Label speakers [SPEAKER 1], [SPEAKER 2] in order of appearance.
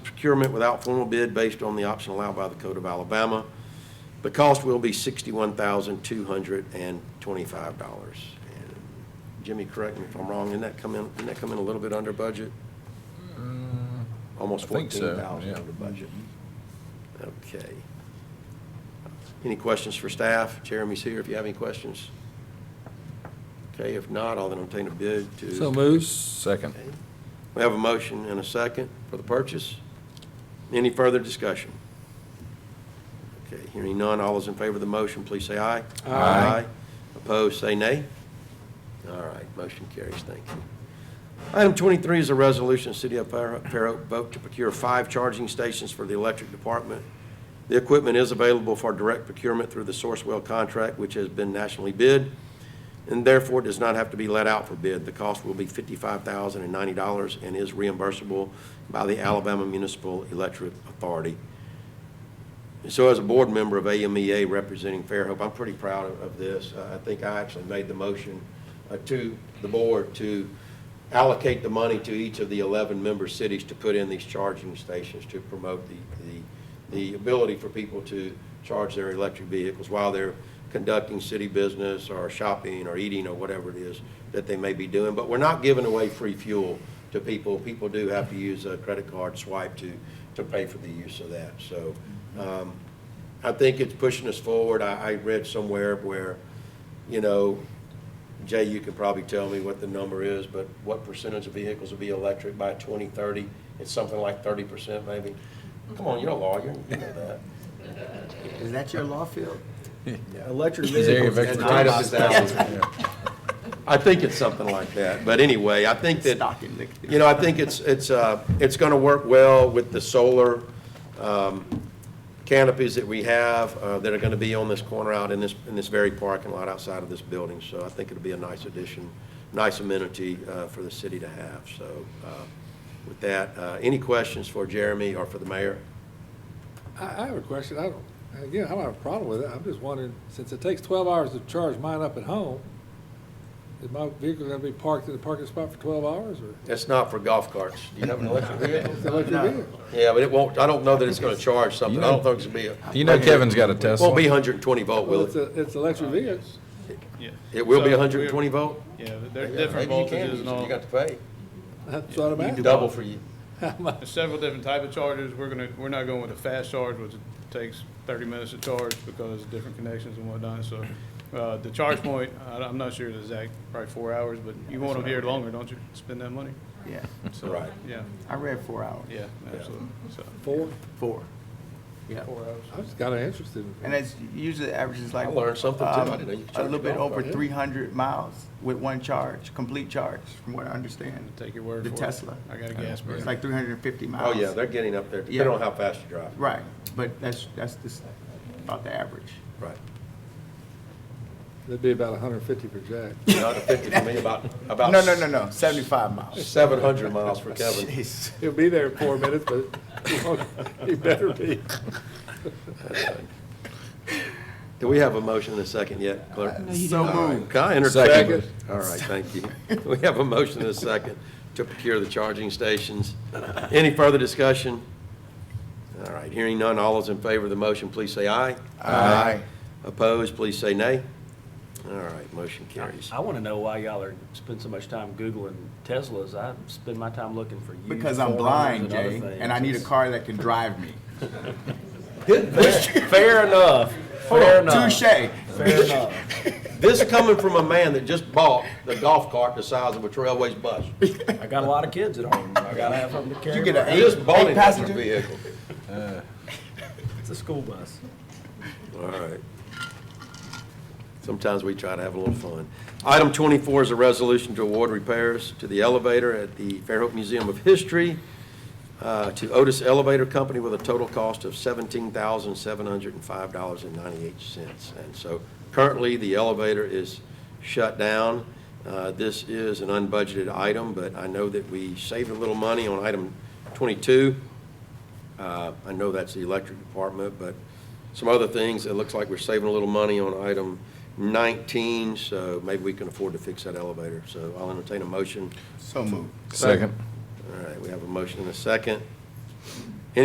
[SPEAKER 1] procurement without formal bid based on the option allowed by the Code of Alabama. The cost will be sixty-one thousand, two hundred and twenty-five dollars. Jimmy, correct me if I'm wrong, didn't that come in, didn't that come in a little bit under budget? Almost
[SPEAKER 2] Mm, I think so,
[SPEAKER 1] fourteen thousand
[SPEAKER 2] yeah.
[SPEAKER 1] under budget. Okay. Any questions for staff? Jeremy's here if you have any questions. Okay, if not, I'll entertain a bid to.
[SPEAKER 2] So moves. Second.
[SPEAKER 1] Okay. We have a motion and a second for the purchase. Any further discussion? Okay, hearing none, all those in favor of the motion, please say aye.
[SPEAKER 2] Aye.
[SPEAKER 1] Opposed, say nay. All right, motion carries, thank you. Item 23 is a resolution, City of Fair Fair Oak vote to procure five charging stations for the electric department. The equipment is available for direct procurement through the Sourcewell contract, which has been nationally bid, and therefore does not have to be let out for bid. The cost will be $55,090 and is reimbursable by the Alabama Municipal Electric Authority. So as a board member of AMEA representing Fairhope, I'm pretty proud of- of this. Uh, I think I actually made the motion uh, to the board to allocate the money to each of the 11 member cities to put in these charging stations to promote the, the, the ability for people to charge their electric vehicles while they're conducting city business or shopping or eating or whatever it is that they may be doing. But we're not giving away free fuel to people. People do have to use a credit card swipe to, to pay for the use of that. So um, I think it's pushing us forward. I, I read somewhere where, you know, Jay, you could probably tell me what the number is, but what percentage of vehicles will be electric by 2030? It's something like 30% maybe? Come on, you're a lawyer, you know that.
[SPEAKER 3] Is that your law field?
[SPEAKER 4] Electric
[SPEAKER 2] His area of
[SPEAKER 4] vehicles.
[SPEAKER 2] expertise.
[SPEAKER 1] Right up his alley. I think it's something like that, but anyway, I think that, you know, I think it's, it's, uh, it's gonna work well with the solar, um, canopies that we have, uh, that are gonna be on this corner out in this, in this very parking lot outside of this building, so I think it'll be a nice addition, nice amenity, uh, for the city to have, so, uh, with that, uh, any questions for Jeremy or for the mayor?
[SPEAKER 4] I, I have a question. I don't, again, I don't have a problem with it. I'm just wondering, since it takes twelve hours to charge mine up at home, is my vehicle gonna be parked in the parking spot for twelve hours or?
[SPEAKER 1] It's not for golf carts, do you have an electric vehicle?
[SPEAKER 4] It's an electric vehicle.
[SPEAKER 1] Yeah, but it won't, I don't know that it's gonna charge something, I don't think it's gonna be a.
[SPEAKER 2] You know Kevin's got a Tesla.
[SPEAKER 1] Won't be hundred and twenty volt,
[SPEAKER 4] Well,
[SPEAKER 1] will
[SPEAKER 4] it's
[SPEAKER 1] it?
[SPEAKER 4] a, it's electric vehicle.
[SPEAKER 5] Yeah.
[SPEAKER 1] It will be
[SPEAKER 5] So
[SPEAKER 1] hundred and twenty
[SPEAKER 5] we're-
[SPEAKER 1] volt?
[SPEAKER 5] Yeah, there are different voltages and all.
[SPEAKER 1] to pay.
[SPEAKER 4] That's what I'm asking.
[SPEAKER 1] Double for you.
[SPEAKER 5] There's several different type of chargers. We're gonna, we're not going with a fast charge, which takes thirty minutes to charge because of different connections and whatnot, so. Uh, the charge point, I, I'm not sure the exact, probably four hours, but you want them here longer, don't you? Spend that money?
[SPEAKER 3] Yeah,
[SPEAKER 5] So,
[SPEAKER 1] Right.
[SPEAKER 5] Yeah,
[SPEAKER 3] I read four hours.
[SPEAKER 5] yeah, absolutely. So,
[SPEAKER 4] Four?
[SPEAKER 3] Four. Yeah,
[SPEAKER 5] four hours.
[SPEAKER 4] I'm just kinda interested.
[SPEAKER 3] and it's usually averages like.
[SPEAKER 1] I learned something too. I
[SPEAKER 3] um,
[SPEAKER 1] didn't know you could
[SPEAKER 3] A
[SPEAKER 1] charge
[SPEAKER 3] little
[SPEAKER 1] a
[SPEAKER 3] bit
[SPEAKER 1] golf
[SPEAKER 3] over
[SPEAKER 1] cart, yeah.
[SPEAKER 3] three hundred miles with one charge, complete charge, from what I understand.
[SPEAKER 5] Take your word for
[SPEAKER 3] The
[SPEAKER 5] it.
[SPEAKER 3] Tesla.
[SPEAKER 5] I got a gas
[SPEAKER 3] It's
[SPEAKER 5] burner.
[SPEAKER 3] like three hundred and fifty
[SPEAKER 1] Oh,
[SPEAKER 3] miles.
[SPEAKER 1] yeah, they're getting up there,
[SPEAKER 3] Yeah.
[SPEAKER 1] depending on how fast you drive.
[SPEAKER 3] Right, but that's, that's just about the average.
[SPEAKER 1] Right.
[SPEAKER 4] It'd be about hundred and fifty per jack.
[SPEAKER 1] Not a fifty for me, about,
[SPEAKER 3] No,
[SPEAKER 1] about.
[SPEAKER 3] no, no, no, seventy-five miles.
[SPEAKER 1] Seven hundred miles for Kevin.
[SPEAKER 3] Jeez.
[SPEAKER 4] He'll be there in four minutes, but he better be.
[SPEAKER 1] Do we have a motion and a second yet, clerk?
[SPEAKER 3] So moved.
[SPEAKER 1] Can I entertain?
[SPEAKER 2] Second.
[SPEAKER 1] All right, thank you. We have a motion and a second to procure the charging stations. Any further discussion? All right, hearing none, all those in favor of the motion, please say aye.
[SPEAKER 3] Aye.
[SPEAKER 1] Opposed, please say nay. All right, motion carries.
[SPEAKER 6] I want to know why y'all are, spend so much time Googling Teslas. I spend my time looking for you.
[SPEAKER 3] Because I'm blind, Jay, and I need a car that can drive me.
[SPEAKER 6] Fair enough, fair enough.
[SPEAKER 3] Touche.
[SPEAKER 6] Fair enough.
[SPEAKER 1] This coming from a man that just bought the golf cart the size of a Trailways bus.
[SPEAKER 6] I got a lot of kids at home. I gotta have something to carry.
[SPEAKER 3] You get an
[SPEAKER 1] He
[SPEAKER 3] eight,
[SPEAKER 1] just bought
[SPEAKER 3] eight
[SPEAKER 1] it as a
[SPEAKER 3] passenger?
[SPEAKER 1] vehicle.
[SPEAKER 6] It's a school bus.
[SPEAKER 1] All right. Sometimes we try to have a little fun. Item 24 is a resolution to award repairs to the elevator at the Fairhope Museum of History uh, to Otis Elevator Company with a total cost of $17,705.98. And so currently, the elevator is shut down. Uh, This is an unbudgeted item, but I know that we saved a little money on item 22. Uh, I know that's the electric department, but some other things, it looks like we're saving a little money on item 19, so maybe we can afford to fix that elevator. So I'll entertain a motion.
[SPEAKER 3] So moved.
[SPEAKER 2] Second.
[SPEAKER 1] All right, we have a motion and a second.